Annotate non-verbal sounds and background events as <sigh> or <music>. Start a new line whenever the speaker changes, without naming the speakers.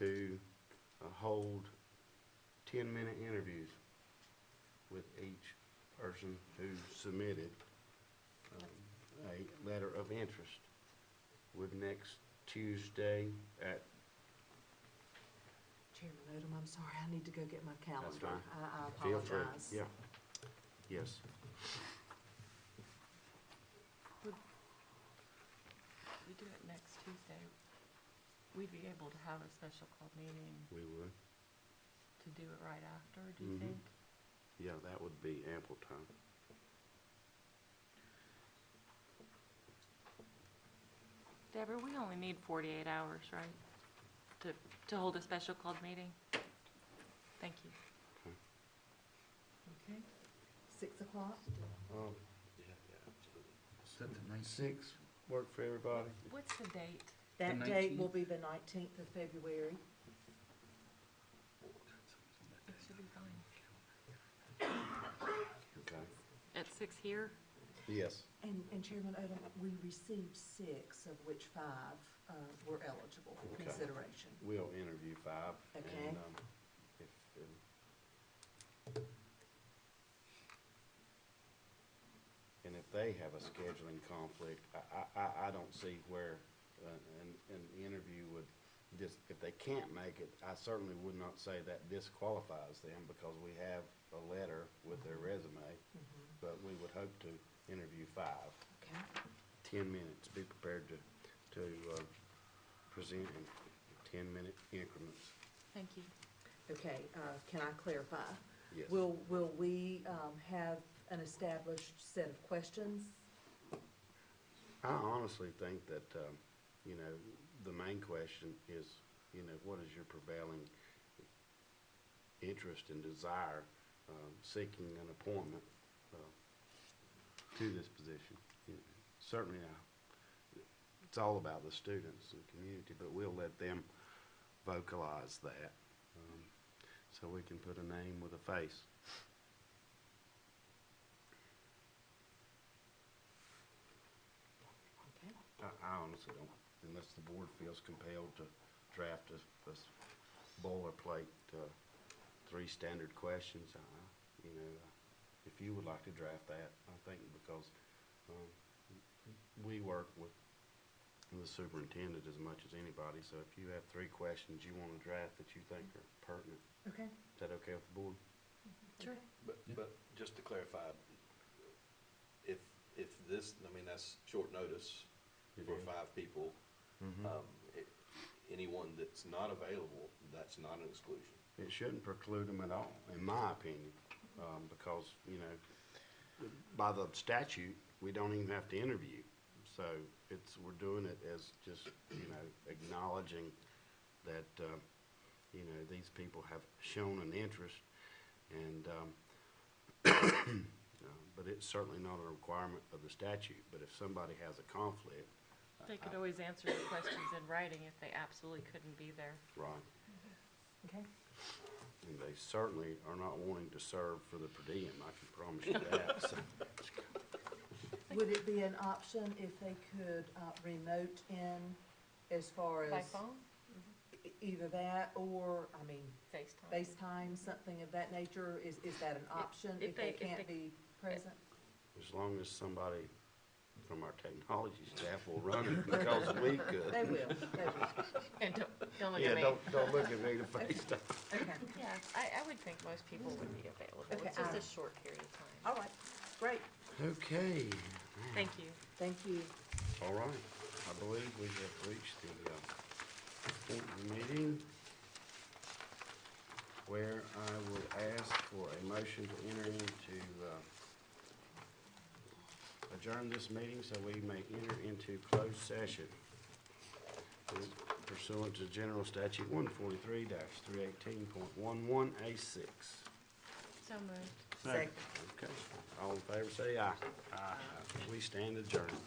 to uh, hold ten-minute interviews with each person who submitted um, a letter of interest. Would next Tuesday at,
Chairman Odom, I'm sorry, I need to go get my calendar.
fine.
I I
feel free,
apologize.
yeah, yes.
We do it next Tuesday. We'd be able to have a special call meeting
We would.
to do it right after, do you
Mhm.
think?
Yeah, that would be ample time.
Deborah, we only need forty-eight hours, right? To, to hold a special called meeting? Thank you.
Okay, six o'clock?
Um,
Set the ninth,
six, work for everybody?
What's the date?
That date will be the nineteenth of February.
It should be fine.
Okay.
At six here?
Yes.
And, and Chairman Odom, we received six, of which five, uh, were eligible for
Okay.
consideration.
We'll interview five.
Okay.
And, um, if, um, and if they have a scheduling conflict, I, I, I, I don't see where, uh, an, an interview would just, if they can't make it, I certainly would not say that disqualifies them because we have a letter with their resume, but we would hope to interview five.
Okay,
10 minutes, be prepared to, to uh, present in 10-minute increments.
Thank you.
okay, uh, can I clarify?
Yes.
Will, will we, um, have an established set of questions?
I honestly think that, um, you know, the main question is, you know, what is your prevailing interest and desire um, seeking an appointment uh, to this position? You know, Certainly, uh, it's all about the students and community, but we'll let them vocalize that um, so we can put a name with a face.
Okay,
I, I honestly don't, unless the board feels compelled to draft a, a s- boilerplate, uh, three standard questions, I, I- you know, if you would like to draft that, I think because, um, we work with the superintendent as much as anybody, so if you have three questions you wanna draft that you think are pertinent,
okay.
is that okay with the board?
Sure.
But,
Yeah.
but just to clarify, if, if this, I mean, that's short notice
It
for
is. Mm-hmm.
five people. Um, i- Anyone that's not available, that's not an exclusion.
It shouldn't preclude them at all, in my opinion, um, because, you know, by the statute, we don't even have to interview. So it's, we're doing it as just, you know, acknowledging that, um, you know, these people have shown an interest and, um, <coughs> uh, but it's certainly not a requirement of the statute, but if somebody has a conflict,
They could always answer the questions in writing if they absolutely couldn't be there.
right,
Okay.
And they certainly are not wanting to serve for the per diem, I can promise you that. So,
Would it be an option if they could, uh, remote in as far as?
By phone?
e- Either that or, I mean,
FaceTime?
FaceTime, something of that nature, is, is that an option
if
if they
they- if
can't
they-
be present?
As long as somebody from our technology staff will run it because we
They
could.
will, they will,
And don't, don't look
Yeah,
at me.
don't, don't look at me to
<laughs>
face that.
okay,
Yeah, Uh, I, I would think most people would be available.
Okay,
It's just
I-
a short period of time.
all right, great,
Okay,
Thank you.
thank you.
all right. I believe we have reached the, uh, point of the meeting where I will ask for a motion to enter into, uh, adjourn this meeting so we may enter into closed session. pursuant to General Statute one forty-three three eighteen point one one A six.
So moved.
Second.
Okay, all in favor say aye. Aye. We stand adjourned.